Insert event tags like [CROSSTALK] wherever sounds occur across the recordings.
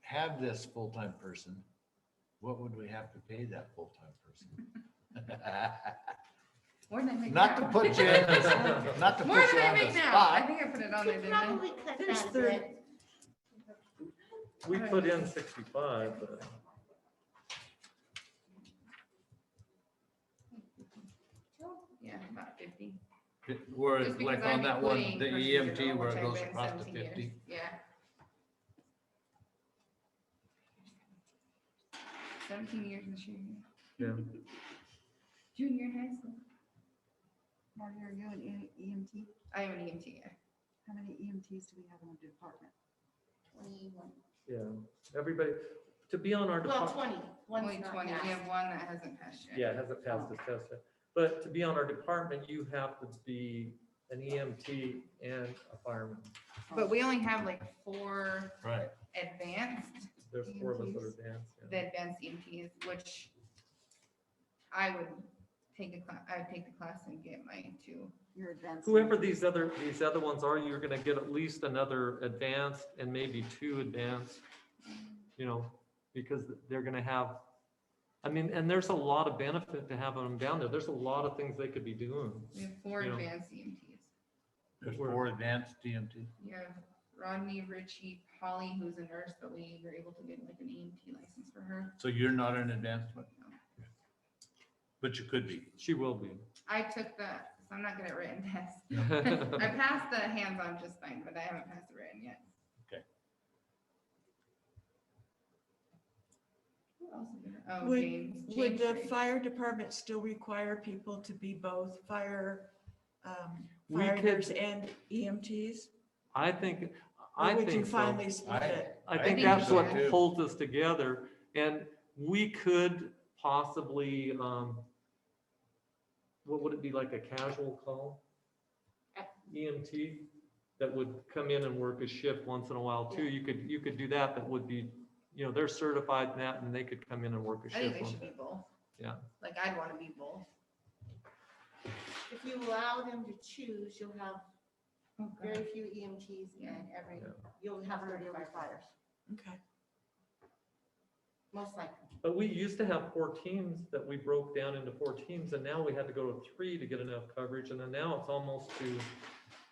have this full-time person, what would we have to pay that full-time person? [LAUGHS] More than I make now. Not to [LAUGHS] put you, in the- not to put More you than I on make the now. I spot. think I put it on there, Could didn't I? probably cut There's that a thirty. bit. We put in sixty-five, but Yeah, about fifty. Where, Just because like I'm on that one, including the person EMT who's been where it overtime goes been across to 17 years. fifty. Yeah. Seventeen years in the junior. Yeah. Junior in high school. Marty, are you an E- EMT? I am an EMT, yeah. How many EMTs do we have in the department? Twenty-one. yeah, everybody, to be on our Well, department, twenty. One's Only not twenty. We passed. have one that hasn't passed yet. yeah, it hasn't passed its test yet. But to be on our department, you have to be an EMT and a fireman. But we only have like four Right, advanced There's four of us that are advanced. yeah. the advanced EMTs, which I would take a class, I would take the class and get my two. You're advanced. Whoever these other, these other ones are, you're gonna get at least another advanced and maybe two advanced, you know, because they're gonna have, I mean, and there's a lot of benefit to having them down there. There's a lot of things they could be doing. We have four Yeah. advanced E EMTs. there's Where- four advanced E EMT. You have Rodney, Richie, Polly, who's a nurse, but we were able to get like an EMT license for her. So you're not an advanced one? But you could be. She will be. I took the, so I'm not good at written [LAUGHS] tests. I passed the hands-on just fine, but I haven't passed the written yet. Okay. Who else is there? Oh, Would- James. Would James the Drake. fire department still require people to be both fire, um, We firefighters and EMTs? I think, Or I would you think so. finally split I- it? I I think think that's so, what too. holds us together, and we could possibly, um, what would it be like, a casual call? EMT that would come in and work a shift once in a while too, you could, you could do that, that would be, you know, they're certified in that, and they could come in and work a I think shift. they once- should be both. Yeah. Like, I'd want to be both. If you allow them to choose, you'll have Oh, very few EMTs and every, you'll have Thirty thirty will be firefighters, Okay. most likely. But we used to have four teams that we broke down into four teams, and now we had to go to three to get enough coverage, and then now it's almost to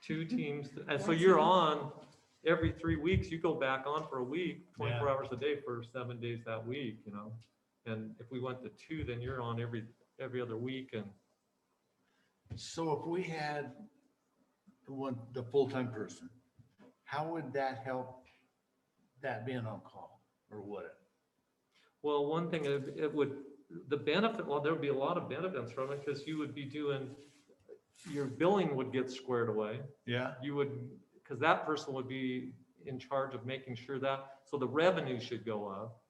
two teams. Mm-hmm. And so you're on every three weeks, you go back on for a week, twenty-four hours a day for seven days that week, you know? And if we went to two, then you're on every, every other week, and So if we had the one, the full-time person, how would that help that being on call or would it? Well, one thing, it it would, the benefit, well, there would be a lot of benefits from it, because you would be doing, your billing would get squared away. Yeah. You would, because that person would be in charge of making sure that, so the revenue should go up.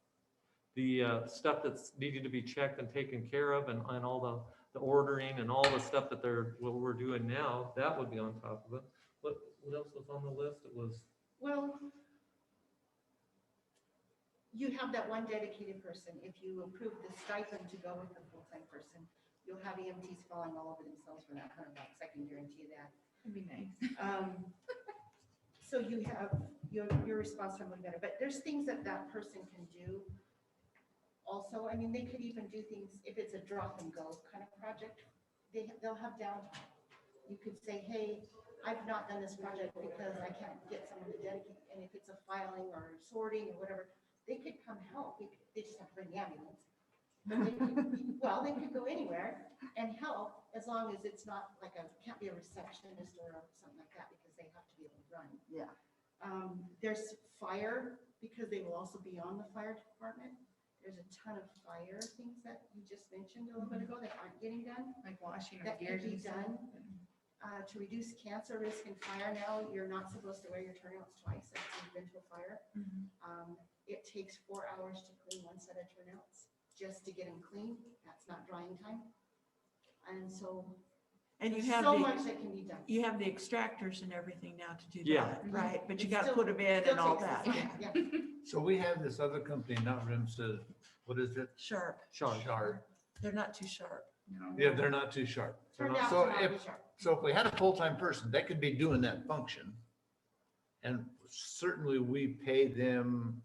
The uh, stuff that's needed to be checked and taken care of and, and all the, the ordering and all the stuff that they're, what we're doing now, that would be on top of it. What, what else was on the list? It was, Well, you have that one dedicated person. If you approve the stipend to go with the full-time person, you'll have EMTs falling all over themselves for that hundred bucks. I can guarantee that. That'd be nice. Um, So you have, your, your response time would be better, but there's things that that person can do. Also, I mean, they could even do things, if it's a drop and go kind of project, they, they'll have downtime. You could say, hey, I've not done this project because I can't get someone to dedicate, and if it's a filing or sorting or whatever, they could come help, They could- they just have to bring the ambulance. But they could- Well, they could go anywhere, and help as long as it's not like a, can't be a receptionist or something like that because they have to be able to run. Yeah. Um, there's fire because they will also be on the fire department. There's a ton of fire things that you just mentioned a little bit ago that aren't getting done. Like washing our That could gears be and stuff. done. Uh, to reduce cancer risk in fire now, you're not supposed to wear your turnouts twice if you've been to a fire. Mhm. Um, it takes four hours to clean one set of turnouts, just to get them clean. That's not drying time. And so And you there's have so much the, that can be done. you have the extractors and everything now to do Yeah. that, right? But you It's gotta Mm-hmm. still- put them in Still and all takes us that, time, yeah. yeah. So we have this other company, not Rimsa, what is it? Sharp. Sean, Shard. They're not too sharp. No. Yeah, they're not too sharp. Turned out So to not be if- sharp. So if we had a full-time person, they could be doing that function. And certainly we pay them